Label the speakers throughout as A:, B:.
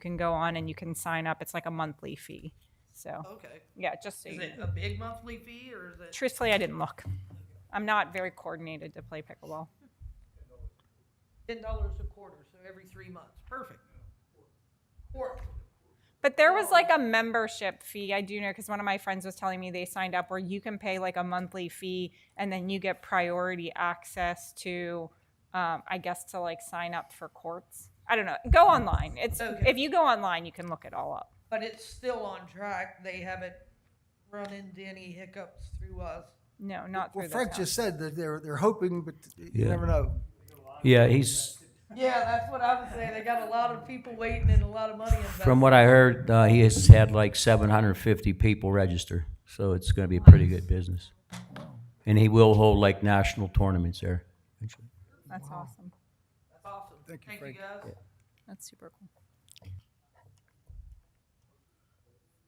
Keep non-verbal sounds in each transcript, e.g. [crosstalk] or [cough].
A: can go on and you can sign up. It's like a monthly fee. So
B: Okay.
A: yeah, just so
B: Is
A: you
B: it
A: know.
B: a big monthly fee or is it?
A: truthfully, I didn't look. I'm not very coordinated to play pickleball.
B: Ten dollars a quarter, so every three months. Perfect. Or,
A: But there
B: Oh.
A: was like a membership fee. I do know because one of my friends was telling me they signed up where you can pay like a monthly fee and then you get priority access to, um, I guess, to like sign up for courts. I don't know. Go online. It's
B: Okay.
A: if you go online, you can look it all up.
B: but it's still on track. They haven't run into any hiccups through us.
A: No, not through
C: Well,
A: this
C: Frank
A: one.
C: just said that they're, they're hoping, but you
D: Yeah.
C: never know.
D: Yeah, he's,
B: Yeah, that's what I was saying. They got a lot of people waiting and a lot of money invested.
D: from what I heard, uh, he has had like seven hundred and fifty people register, so it's gonna be a pretty good business. And he will hold like national tournaments there.
A: That's awesome.
B: That's awesome.
C: Thank you, Frank.
B: guys.
A: That's super cool.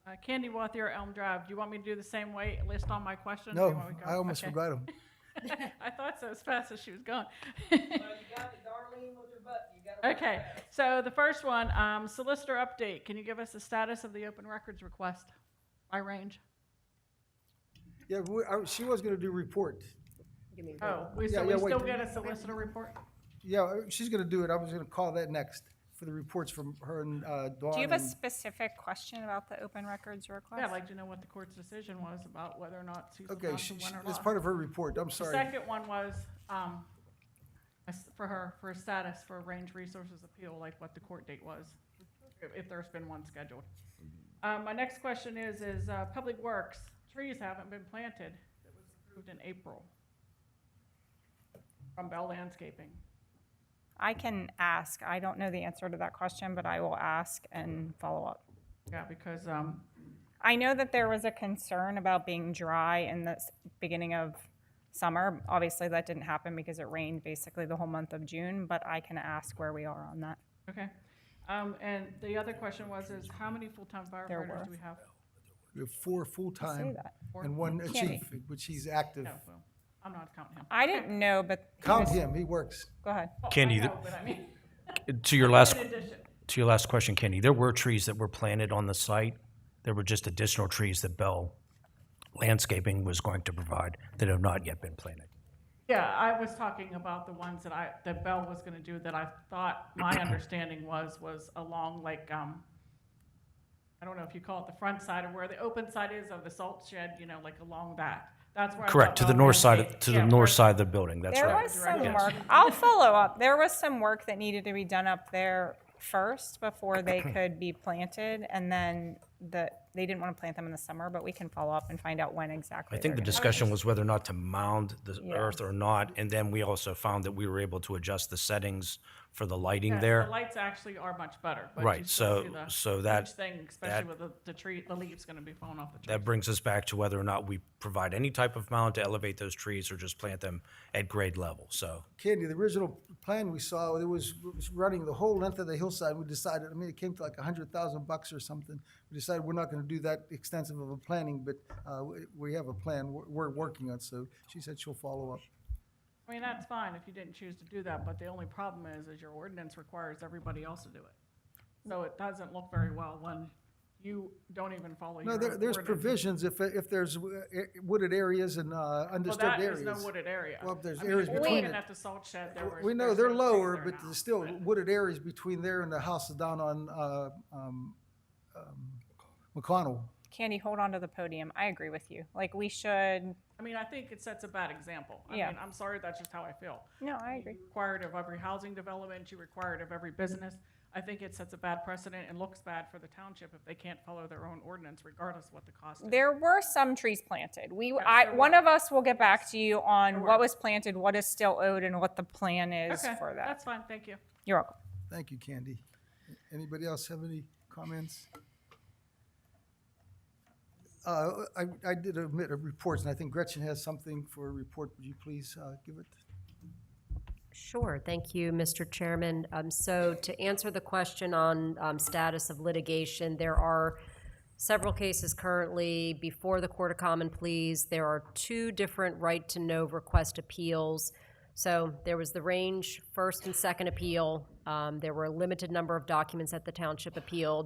E: Uh, Candy Wathier, Elm Drive. Do you want me to do the same way, list all my questions? or you
C: No,
E: want me to go?
C: I almost
E: Okay.
C: forgot him.
E: [laughs] I thought so, as fast as she was going. [laughs]
B: Well, you got the Darlene with her butt. You got her
E: Okay, so the first one, um, solicitor update. Can you give us the status of the open records request by range?
C: Yeah, we- I- she was going to do report.
E: Oh, we,
C: Yeah,
E: so we
C: yeah, wait.
E: still get a solicitor report?
C: Yeah, uh, she's going to do it. I was going to call that next for the reports from her and uh, Dawn.
A: Do you have a
C: and-
A: specific question about the open records request?
E: Yeah, like, do you know what the court's decision was about whether or not Susan
C: Okay,
E: Johnson
C: she-
E: won
C: she-
E: or
C: it's
E: lost?
C: part of her report. I'm
E: The
C: sorry.
E: second one was, um, a s- for her, for status for range resources appeal, like what the court date was, if- if there's been one scheduled. Um, my next question is, is, uh, Public Works, trees haven't been planted, it was approved in April from Bell Landscaping.
A: I can ask. I don't know the answer to that question, but I will ask and follow up.
E: Yeah, because, um,
A: I know that there was a concern about being dry in the s- beginning of summer. Obviously, that didn't happen because it rained basically the whole month of June, but I can ask where we are on that.
E: okay. Um, and the other question was, is how many full-time firefighters
A: were.
E: do we have?
C: We have four
A: Say
C: full-time
A: that.
C: and one uh,
A: Can't be.
C: chief, which he's active.
E: No, well, I'm not counting him.
A: I didn't know, but he
C: Count
A: was-
C: him, he works.
A: Go ahead.
E: Well, I
F: Candy, the-
E: know, but I mean, [laughs]
F: To your last,
E: in addition.
F: to your last question, Kenny, there were trees that were planted on the site. There were just additional trees that Bell Landscaping was going to provide that have not yet been planted.
E: Yeah, I was talking about the ones that I, that Bell was gonna do that I thought,
F: [clears throat]
E: my understanding was, was along like, um, I don't know if you call it the front side of where the open side is of the salt shed, you know, like along that. That's where I thought
F: Correct, to the
E: Bell
F: north side, of-
E: Landscape-
F: to
E: yeah,
F: the
E: where-
F: north side of the building, that's
A: There
F: right.
A: was some work, I'll follow up. There was some work that needed to be done up there first before
F: [clears throat]
A: they could be planted, and then the, they didn't want to plant them in the summer, but we can follow up and find out when exactly.
F: I think the
A: they're gonna-
F: discussion was whether or not to mound the
A: Yeah.
F: earth or not, and then we also found that we were able to adjust the settings for the lighting
E: yes,
F: there.
E: The lights actually are much better. but you
F: Right,
E: still
F: so-
E: see the
F: so
E: huge
F: that-
E: Thing, especially with the, the tree, the leaves gonna be falling off the tree.
F: That brings us back to whether or not we provide any type of mound to elevate those trees or just plant them at grade level, so.
C: Candy, the original plan we saw, it was was running the whole length of the hillside. We decided, I mean, it came to like a hundred thousand bucks or something. We decided we're not gonna do that extensive of a planning, but uh, we- we have a plan we're- we're working on, so she said she'll follow up.
E: I mean, that's fine if you didn't choose to do that, but the only problem is, is your ordinance requires everybody else to do it. So it doesn't look very well when you don't even follow your
C: No,
E: own
C: there, there's
E: ordinance.
C: provisions if, if there's uh, wooded areas and uh,
E: Well,
C: undisturbed
E: that
C: areas.
E: is no wooded area.
C: Well, there's
E: I mean,
C: areas
E: if you're
C: between
E: looking
C: it.
E: At the salt shed, there were.
C: We know
E: there's
C: they're
E: certain trees
C: lower,
E: there
C: but
E: now.
C: there's still wooded areas between there and the house down on uh, um, um, McConnell.
A: Candy, hold on to the podium. I agree with you. Like, we should,
E: I mean, I think it sets a bad example. I
A: Yeah.
E: mean, I'm sorry, that's just how I feel.
A: no, I agree.
E: You require it of every housing development, you require it of every business. I think it sets a bad precedent and looks bad for the township if they can't follow their own ordinance regardless what the cost is.
A: There were some trees planted. We, I,
E: there
A: one of us will get back to you on what
E: were.
A: was planted, what is still owed, and what the plan is
E: Okay,
A: for that.
E: That's fine, thank you.
A: You're welcome.
C: Thank you, Candy. Anybody else have any comments? Uh, I, I did omit a report, and I think Gretchen has something for a report. Would you please uh, give it?
G: Sure, thank you, Mr. Chairman. Um, So to answer the question on um, status of litigation, there are several cases currently before the Court of Common Pleas. There are two different right-to-know request appeals. So there was the range first and second appeal, Um, There were a limited number of documents that the township appealed.